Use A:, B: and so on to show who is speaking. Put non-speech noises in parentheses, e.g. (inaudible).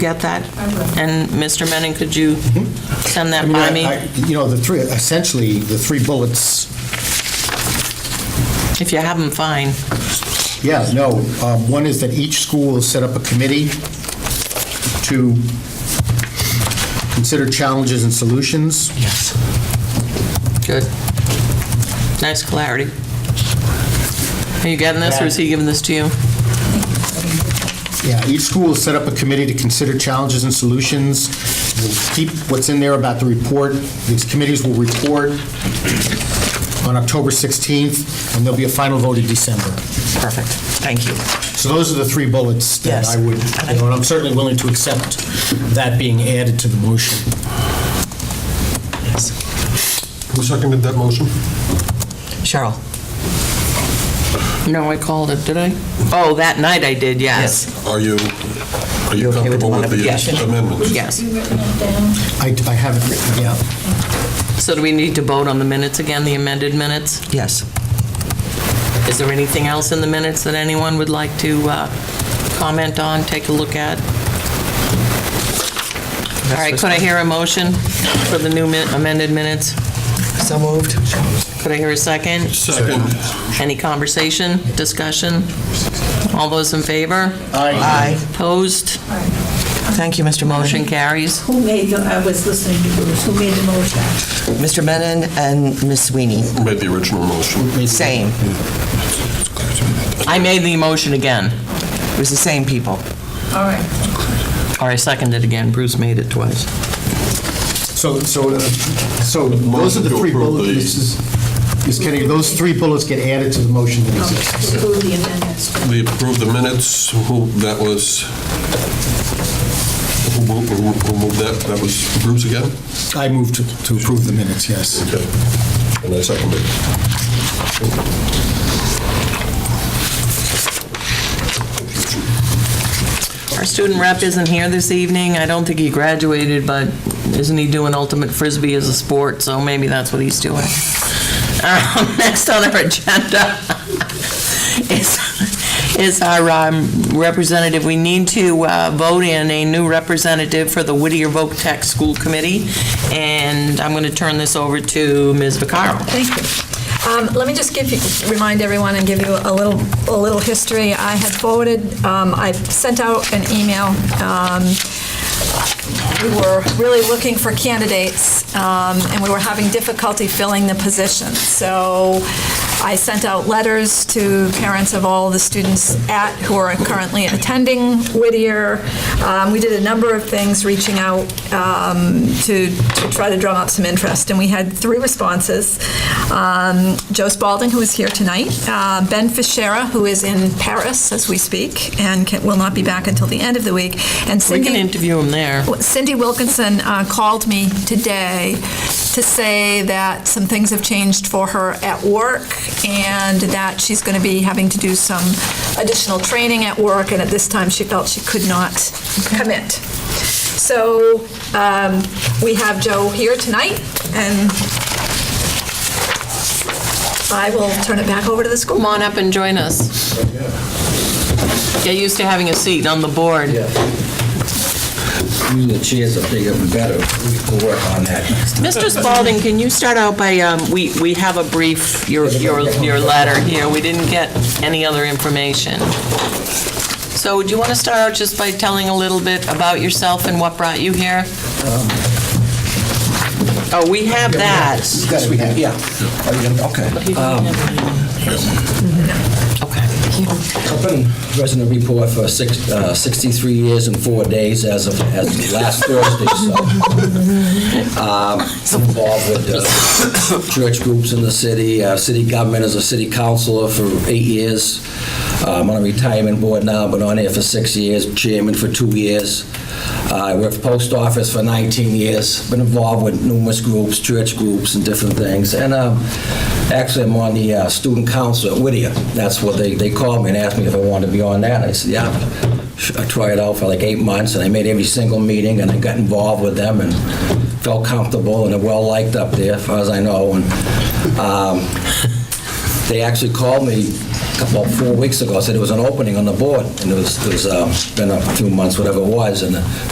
A: get that? And Mr. Menon, could you send that by
B: I mean,
A: me?
B: I- I- You know, the three, essentially, the three bullets,
A: If you have them, fine.
B: yeah, no, um, one is that each school will set up a committee to consider challenges and solutions.
A: Yes. Good. Nice clarity. Are you getting this, or is he giving this to you?
B: Yeah, each school will set up a committee to consider challenges and solutions. We'll keep what's in there about the report. These committees will report on October 16th, and there'll be a final vote in December.
A: Perfect. Thank you.
B: So those are the three bullets that
A: Yes.
B: I would, you know, and I'm certainly willing to accept that being added to the motion.
C: Who seconded that motion?
D: Cheryl.
A: No, I called it, did I? Oh, that night I did, yes.
C: Are you, are
D: You
C: you
D: okay with the
C: comfortable with
D: modification?
C: the amendments?
A: Yes.
B: I I have it written down.
A: So do we need to vote on the minutes again, the amended minutes?
D: Yes.
A: Is there anything else in the minutes that anyone would like to uh, comment on, take a look at? All right, could I hear a motion for the new min- amended minutes?
D: So moved.
A: Could I hear a second?
C: Second.
A: Any conversation, discussion? All those in favor?
D: Aye.
A: Opposed?
D: Thank you, Mr.
A: Motion
D: Motion.
A: carries.
E: Who made the, I was listening to Bruce, who made the motion?
D: Mr. Menon and Ms. Sweeney.
C: Made the original motion.
D: Same.
A: I made the motion again,
D: It was the same people.
E: All right,
A: or I seconded again, Bruce made it twice.
B: So, so, uh, so those are the
C: Motion to
B: three
C: approve
B: bullets.
C: the-
B: This is- Ms. Kennedy, those three bullets get added to the motion that exists.
E: to approve the amendments.
C: We approved the minutes, who, that was, who moved, who moved that? That was Bruce again?
B: I move to to approve the minutes, yes.
C: Okay. And I seconded.
A: Our student rep isn't here this evening. I don't think he graduated, but isn't he doing ultimate frisbee as a sport? So maybe that's what he's doing. Um, (laughs) Next on our agenda (laughs) is is our um, representative. We need to uh, vote in a new representative for the Whittier Voc Tech School Committee, and I'm going to turn this over to Ms. Vaccaro.
F: Thank you. Um, Let me just give you, remind everyone and give you a little, a little history. I had forwarded, um, I sent out an email. um, We were really looking for candidates, um, and we were having difficulty filling the position. So I sent out letters to parents of all the students at, who are currently attending Whittier. Um, We did a number of things, reaching out um, to to try to drum up some interest, and we had three responses. Um, Joe Spalding, who is here tonight, uh, Ben Fischera, who is in Paris as we speak, and can- will not be back until the end of the week, and
A: We
F: Cindy...
A: can interview him there.
F: Cindy Wilkinson uh, called me today to say that some things have changed for her at work and that she's going to be having to do some additional training at work, and at this time, she felt she could not commit. So um, we have Joe here tonight, and I will turn it back over to the school.
A: Come on up and join us. Get used to having a seat on the board.
G: Usually the chairs are bigger and better. We'll work on that.
A: Mr. Spalding, can you start out by, um, we we have a brief, your your your letter here, we didn't get any other information. So would you want to start out just by telling a little bit about yourself and what brought you here? Oh, Um, we have that.
B: Yes, we have.
G: Yeah. Are you gonna- Okay.
A: Okay.
G: I've been resident report for six- uh, 63 years and four days as of, as of last Thursday, so. Um, Involved with uh, church groups in the city, uh, city government as a city councilor for eight years. Uh, I'm on a retirement board now, been on there for six years, chairman for two years. Uh, I worked for post office for 19 years, been involved with numerous groups, church groups and different things. And um, Actually, I'm on the uh, student council at Whittier. That's what they, they called me and asked me if I wanted to be on that. I said, yeah. Sh- I tried out for like eight months, and I made every single meeting, and I got involved with them, and felt comfortable and well-liked up there, as far as I know. And um, they actually called me about four weeks ago, said there was an opening on the board, and it was, it was, uh, been a few months, whatever it was, and uh,